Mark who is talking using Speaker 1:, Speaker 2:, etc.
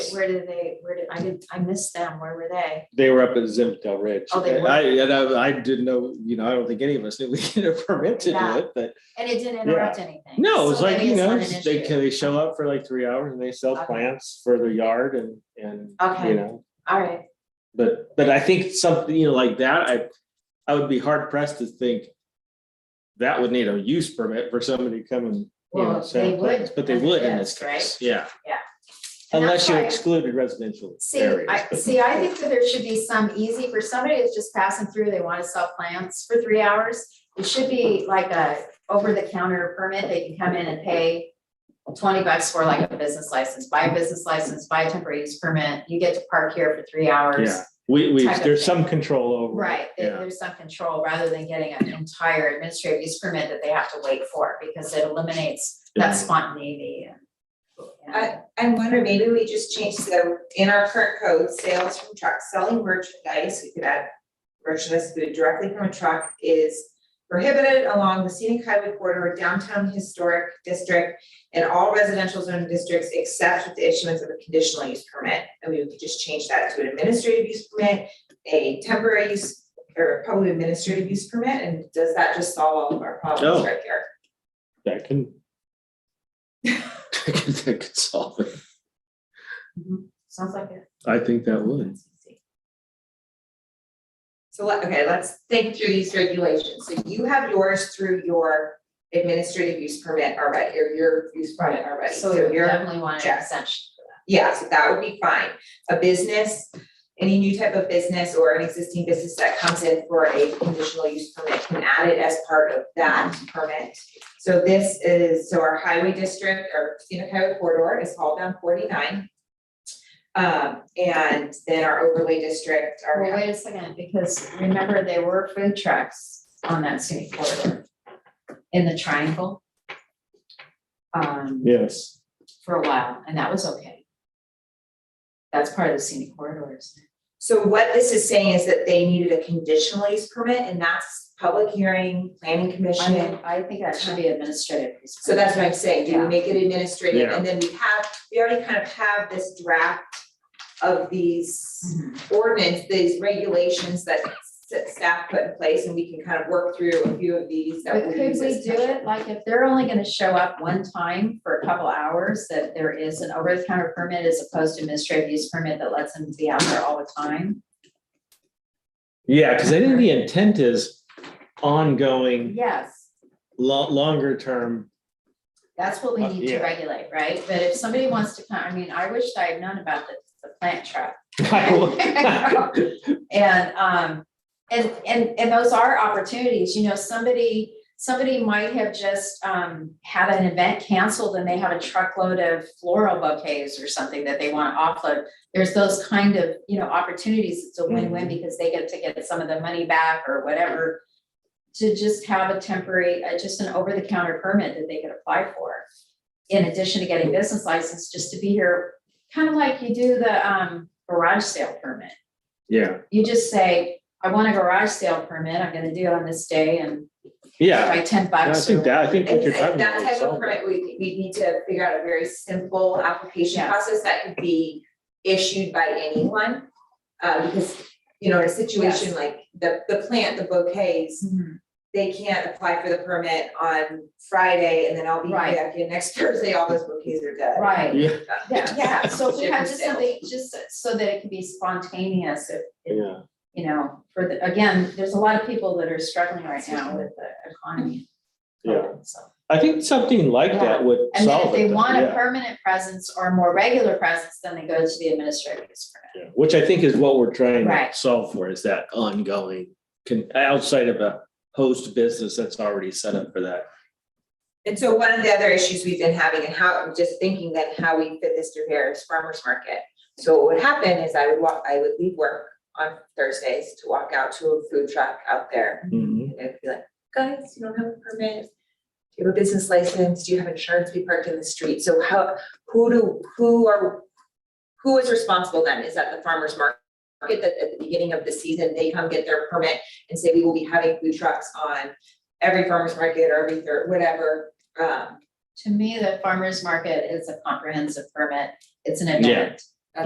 Speaker 1: did, where did they, where did, I didn't, I missed them, where were they?
Speaker 2: They were up at Zimtel Ridge.
Speaker 1: Oh, they were?
Speaker 2: I, and I, I didn't know, you know, I don't think any of us knew we had a permit to do
Speaker 1: Yeah.
Speaker 2: it, but
Speaker 1: And it didn't interrupt anything.
Speaker 2: no, it's
Speaker 1: so
Speaker 2: like,
Speaker 1: maybe
Speaker 2: you know,
Speaker 1: not an
Speaker 2: they
Speaker 1: issue.
Speaker 2: can, they show up for like three hours and they sell
Speaker 1: Okay.
Speaker 2: plants for their yard and, and,
Speaker 1: Okay.
Speaker 2: you know.
Speaker 1: All right,
Speaker 2: But, but I think something, you know, like that, I, I would be hard pressed to think that would need a use permit for somebody to come and, you know,
Speaker 1: Well, they
Speaker 2: sell
Speaker 1: would
Speaker 2: plants, but they
Speaker 1: under
Speaker 2: would in this
Speaker 1: this, right?
Speaker 2: case, yeah.
Speaker 1: Yeah. And that's
Speaker 2: Unless you
Speaker 1: why-
Speaker 2: excluded residential
Speaker 1: see,
Speaker 2: areas.
Speaker 1: I,
Speaker 2: but-
Speaker 1: see, I think that there should be some easy, for somebody that's just passing through, they wanna sell plants for three hours. It should be like a over-the-counter permit, they can come in and pay twenty bucks for like a business license, buy a business license, buy a temporary use permit, you get to park here for three hours.
Speaker 2: Yeah. We, we,
Speaker 1: type of
Speaker 2: there's
Speaker 1: thing.
Speaker 2: some control over. it,
Speaker 1: Right, there-
Speaker 2: Yeah.
Speaker 1: there's some control rather than getting an entire administrative use permit that they have to wait for because it eliminates
Speaker 2: Yeah.
Speaker 1: that spontaneity. and- and-
Speaker 3: I'm wondering, maybe we just change, so in our current code, sales from trucks, selling merchandise, we could add merchandise food directly from a truck is prohibited along the scenic highway corridor, downtown historic district, and all residential zoning districts except with the issuance of a conditional use permit. And we could just change that to an administrative use permit, a temporary use, or probably administrative use permit, and does that just solve all of our problems
Speaker 2: No.
Speaker 3: right here?
Speaker 2: That can. That could solve it.
Speaker 1: Sounds like it.
Speaker 2: I think that would.
Speaker 3: So let, okay, let's think through these regulations. So you have yours through your administrative use permit already, or your use permit already.
Speaker 1: So we
Speaker 3: you're-
Speaker 1: definitely want an
Speaker 3: check.
Speaker 1: exemption.
Speaker 3: Yeah, so that would be fine. A business, any new type of business or an existing business that comes in for a conditional use permit can add it as part of that permit. So this is, so our highway district or scenic highway corridor is hauled down forty-nine. Um, and then our overlay district, our.
Speaker 1: Well, wait a second, because remember there were food trucks on that scenic corridor in the triangle. Um,
Speaker 2: Yes.
Speaker 1: for a while, and that was okay. That's part of the scenic corridors.
Speaker 3: So what this is saying is that they needed a conditional use permit and that's public hearing, planning
Speaker 1: I
Speaker 3: commission.
Speaker 1: mean, I think that should be administrative.
Speaker 3: So that's what I'm saying, do
Speaker 1: Yeah.
Speaker 3: we make it administrative?
Speaker 2: Yeah.
Speaker 3: And then we have, we already kind of have this draft of these
Speaker 1: Mhm.
Speaker 3: ordinance, these regulations that s- staff put in place and we can kind of work through a few of these that
Speaker 1: But
Speaker 3: we
Speaker 1: could
Speaker 3: use
Speaker 1: we
Speaker 3: as.
Speaker 1: do it, like, if they're only gonna show up one time for a couple hours, that there is an over-the-counter permit as opposed to administrative use permit that lets them be out there all the time?
Speaker 2: Yeah, because I think the intent is ongoing,
Speaker 1: Yes,
Speaker 2: lo- longer term.
Speaker 1: that's what we
Speaker 2: Uh,
Speaker 1: need to
Speaker 2: yeah.
Speaker 1: regulate, right? But if somebody wants to come, I mean, I wish I had known about the, the plant truck. And, um, and, and, and those are opportunities, you know, somebody, somebody might have just, um, had an event canceled and they have a truckload of floral bouquets or something that they want to offload. There's those kind of, you know, opportunities, it's a win-win
Speaker 2: Mm-hmm.
Speaker 1: because they get to get some of the money back or whatever. To just have a temporary, uh, just an over-the-counter permit that they could apply for. In addition to getting business license, just to be here, kind of like you do the, um, garage sale permit
Speaker 2: Yeah,
Speaker 1: you just say, I want a garage sale permit, I'm gonna do it on this day and
Speaker 2: yeah.
Speaker 1: buy ten
Speaker 2: I
Speaker 1: bucks.
Speaker 2: think
Speaker 1: or-
Speaker 2: that, I think what
Speaker 3: And
Speaker 2: you're talking
Speaker 3: and
Speaker 2: about.
Speaker 3: that
Speaker 2: would
Speaker 3: type of
Speaker 2: solve that.
Speaker 3: permit, we, we need to figure out a very simple application
Speaker 1: Yeah.
Speaker 3: process that could be issued by anyone. Uh, because, you know, in a situation
Speaker 1: Yes.
Speaker 3: like the, the plant, the bouquets,
Speaker 1: Mhm.
Speaker 3: they can't apply for the permit on Friday and then I'll be
Speaker 1: Right.
Speaker 3: back here next Thursday, all those bouquets are dead.
Speaker 1: Right,
Speaker 2: Yeah,
Speaker 1: yeah, yeah, so if we have just
Speaker 3: Different
Speaker 1: something, just so that it can be spontaneous, if, if,
Speaker 2: yeah.
Speaker 1: you know, for the, again, there's a lot of people that are struggling right now with the economy.
Speaker 2: Yeah.
Speaker 1: So-
Speaker 2: I think something like that would
Speaker 1: And then if
Speaker 2: solve it.
Speaker 1: they
Speaker 2: though,
Speaker 1: want a
Speaker 2: yeah,
Speaker 1: permanent presence or a more regular presence, then they go to the administrative use permit.
Speaker 2: yeah. Which I think is what we're trying to
Speaker 1: Right.
Speaker 2: solve for is that ongoing, con- outside of a host business that's already set up for that.
Speaker 3: And so one of the other issues we've been having and how, I'm just thinking that how we fit this through here is farmer's market. So what would happen is I would walk, I would leave work on Thursdays to walk out to a food truck out there.
Speaker 2: Mhm.
Speaker 3: And I'd be like, guys, you don't have a permit. Do you have a business license? Do you have insurance? We parked in the street. So how, who do, who are, who is responsible then? Is that the farmer's market that at the beginning of the season, they come get their permit and say, we will be having food trucks on every farmer's market or every third, whatever. Um,
Speaker 1: To me, the farmer's market is a comprehensive permit, it's an
Speaker 2: Yeah.
Speaker 1: event.